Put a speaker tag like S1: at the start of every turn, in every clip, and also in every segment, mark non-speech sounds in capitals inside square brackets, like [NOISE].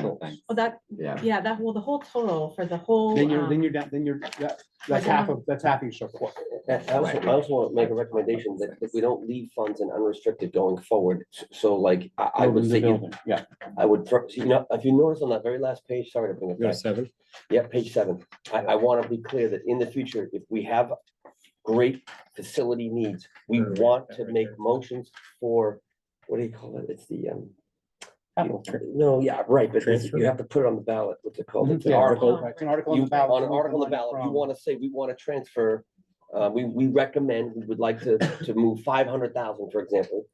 S1: Okay, well, that,
S2: Yeah.
S1: yeah, that, well, the whole total for the whole,
S3: Then you're, then
S1: um,
S3: you're down, then you're, that- that's half of, that's half each support.
S4: I I also,
S2: Right.
S4: I also want to make a recommendation that, that we don't leave funds in unrestricted going forward. S- So like, I, I would say, you-
S3: Yeah.
S4: I would, throw- you know, if you notice on that very last page, sorry to bring it
S5: Go to
S4: back.
S5: seven.
S4: Yeah, page seven. I, I want to be clear that in the future, if we have great facility needs, we
S5: Sure,
S4: want
S5: that
S4: to
S5: right
S4: make
S5: there.
S4: motions for, what do you call it? It's the, um,
S3: Capital.
S4: no, yeah, right, but it's-
S5: Transfer. Mm-hmm.
S4: you have to put it on the ballot. What's it called? It's
S3: Mhm.
S4: an
S3: Yeah,
S4: article.
S3: right. It's an article.
S4: You,
S3: the ballot
S4: on
S3: that we
S4: an
S3: can
S4: article on
S3: run
S4: the ballot, you
S3: from.
S4: want to say, we want to transfer, uh, we, we recommend, we would like to, to move five hundred thousand, for example,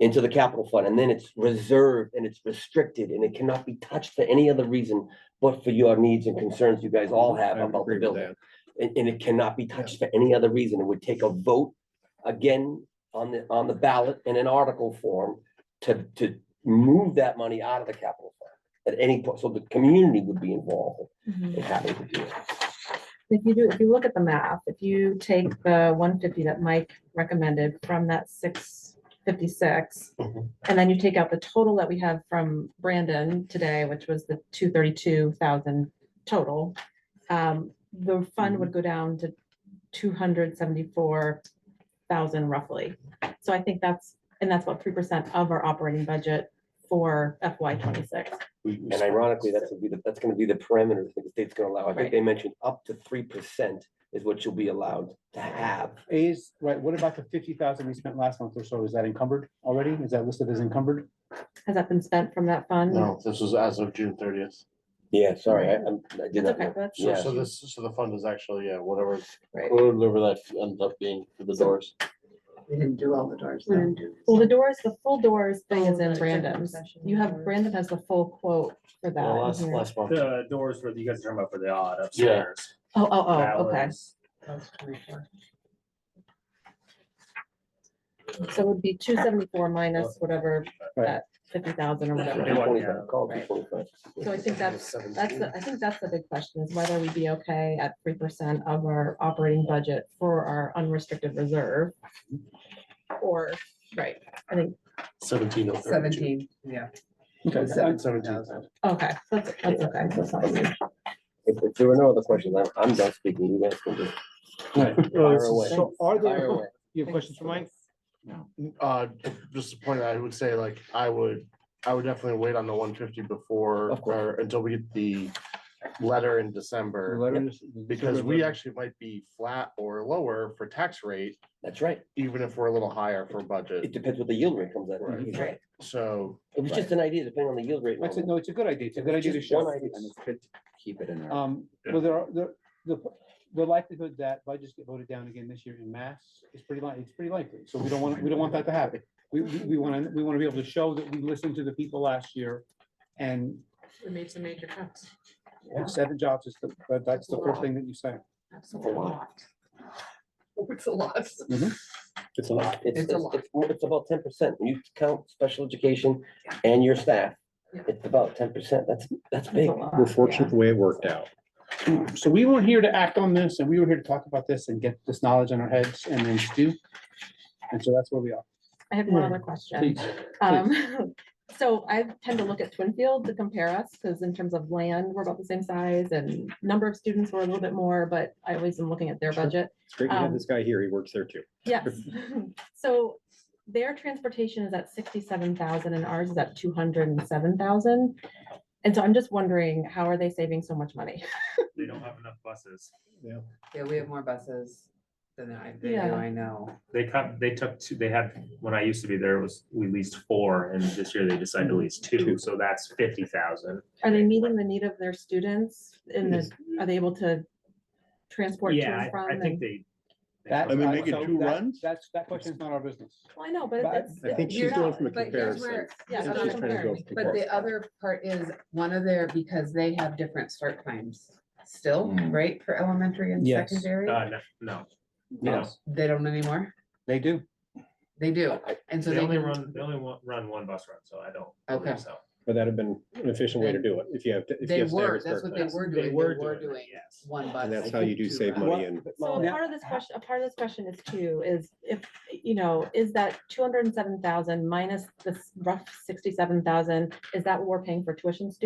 S4: into the capital fund, and then it's reserved and it's restricted, and it cannot be touched for any other reason but for your needs and concerns you guys all have
S5: I would
S4: about
S5: agree
S4: the
S5: with
S4: building.
S5: that.
S4: And, and it cannot be touched for any other reason. It would take a vote again on the, on the ballot in an article form to, to move that money out of the capital fund at any point. So the community would be involved
S1: mhm.
S4: in having to do it.
S1: if you do, if you look at the math, if you take the one fifty that Mike recommended from that six fifty-six,
S3: Mm-hmm.
S4: Mhm.
S1: and then you take out the total that we have from Brandon today, which was the two thirty-two thousand total, um, the fund would go down to two hundred seventy-four thousand roughly. So I think that's, and that's about three percent of our operating budget for FY twenty-six.
S4: And ironically, that's gonna be, the- that's gonna be the parameter that the state's gonna allow. I
S1: Right.
S4: think they mentioned up to three percent is what you'll be allowed to have.
S3: Is, right, what about the fifty thousand we spent last month or so? Is that encumbered already? Is that listed as encumbered?
S1: Has that been spent from that fund?
S6: No, this was as of June thirtieth.
S4: Yeah, sorry, I, I'm- I did
S1: It's
S4: not
S1: okay,
S4: know.
S1: that's,
S6: So,
S4: Yeah.
S6: so this, so the fund is actually, yeah, whatever,
S1: Right.
S6: whatever that ends up being for the
S1: So-
S6: doors.
S7: We didn't do all the doors.
S1: We
S7: though.
S1: didn't well, the doors, the full doors thing is
S7: Oh,
S1: in
S7: the
S1: Brandon's.
S7: executive session
S1: You have,
S7: doors.
S1: Brandon has the full quote for
S6: Yeah,
S1: that.
S6: Last,
S1: in here.
S6: last month.
S5: The doors were, you guys are talking about for the odd
S8: uh,
S5: upstairs.
S1: Oh, oh,
S5: That
S1: oh, okay.
S5: was-
S7: That's 24.
S1: So it would be two seventy-four minus whatever,
S3: Right.
S1: that fifty thousand or
S4: It was
S1: whatever.
S5: Right.
S4: 225, call it
S1: Right.
S4: 225.
S1: So I think that's, that's, the- I think that's the big question is whether we'd be okay at three percent of our operating budget for our unrestricted reserve. Or, right, I think,
S6: Seventeen oh thirty-two.
S7: Seventeen, yeah.
S3: Okay,
S7: Seven-
S3: seventeen.
S7: thousand.
S1: okay, that's, that's okay. that's not huge.
S4: If, if there were no other questions, I'm, I'm done speaking. You guys can just fire away.
S3: So are
S4: Fire
S3: there,
S4: away.
S3: you have questions for Mike?
S6: Uh, just a point, I would say like, I would, I would definitely wait on the one fifty before,
S4: Of course.
S6: or until we get the letter in
S3: The
S6: December.
S3: letter is-
S6: Because we actually might be flat or lower for tax rate,
S4: That's right.
S6: even if we're a little higher for
S4: It
S6: budget.
S4: depends what the yield rate comes out.
S6: Right.
S1: Right.
S6: So
S4: It was just an idea, depending on the yield rate.
S3: That's it,
S4: Norman.
S3: no, it's a good idea. It's a good idea to
S4: Just
S3: show.
S4: one idea.
S2: And it's good to keep it in our,
S3: Um, well, there are, the, the, the likelihood that budgets get voted down again this year in mass is pretty li- it's pretty likely, so we don't want, we don't want that to happen. We, we, we wanna, we wanna be able to show that we listened to the people last year and
S7: We made some major cuts.
S3: seven jobs is, the- but that's the first thing that you say.
S7: Absolutely. It's a lot.
S4: It's a lot. It's,
S7: It's a
S4: it's,
S7: lot.
S4: it's more- it's about ten percent. You count special education and your staff.
S7: Yeah.
S4: It's about ten percent. That's, that's
S1: That's
S4: big.
S1: a lot,
S5: We're fortunate
S1: yeah.
S5: the way it worked out.
S3: So we weren't here to act on this, and we were here to talk about this and get this knowledge in our heads and then do. And so that's where we are.
S1: I have one
S3: Yeah.
S1: other question.
S3: Please.
S1: Um, [LAUGHS] so I tend to look at Twinfield to compare us, because in terms of land, we're about the same size and number of students were a little bit more, but I always am looking at their
S5: Sure.
S1: budget.
S5: It's great to have
S1: Um,
S5: this guy here. He works there too. [LAUGHS]
S1: Yes, [LAUGHS] so their transportation is at sixty-seven thousand and ours is at two hundred and seven thousand. And so I'm just wondering, how are they saving so much money?
S8: they don't have enough buses.
S7: Yeah, we have more buses than I, they do,
S1: Yeah.
S7: I know.
S8: They cut, they took two, they had, when I used to be there, it was, we leased four and this year they decided to lease two, so that's fifty thousand.
S1: Mm-hmm. Are they meeting the need of their students and
S5: Yes.
S1: the- are they able to transport to
S8: Yeah,
S1: and
S8: I- I
S1: from?
S8: think
S1: and-
S8: they. they
S3: That-
S8: cover
S5: I mean,
S8: that
S5: make it
S3: so
S8: one.
S5: two
S3: that-
S5: runs?
S3: That's, that question's not our business.
S1: Well, I know, but
S3: But
S1: it's.
S5: I think
S1: you're
S5: she's going
S1: not-
S5: from a
S7: but here's
S5: comparison.
S7: where-
S1: Yeah, that's
S7: it's not
S1: what
S5: She's
S1: I'm
S5: trying to
S1: comparing.
S5: go from
S7: But the
S5: comparison.
S7: other part is, one of their, because they have different start times still,
S2: Mm.
S7: right, for elementary and
S3: Yes.
S7: secondary?
S8: Uh, no, no,
S4: Yes.
S7: They don't anymore?
S3: They do.
S7: They do,
S4: I-
S7: and so
S8: they
S7: they
S8: only
S7: can
S8: run, they only wa- run one bus run, so I don't
S7: Okay.
S8: believe so.
S5: But that'd have been an efficient way to do it if you have. to- if you
S7: They
S5: have staggered
S7: were, that's
S5: start
S7: what they
S5: times.
S7: were
S8: They
S7: doing, they
S8: were
S7: were
S8: doing it,
S7: doing
S8: yes.
S7: one bus.
S5: And that's
S7: I
S5: how you
S7: think,
S5: do
S7: two
S5: save
S7: routes.
S5: money and
S1: So a
S3: Now-
S1: part of this question, a part of this question is too, is if, you know, is that two hundred and seven thousand minus this rough sixty-seven thousand, is that what we're paying for tuition students?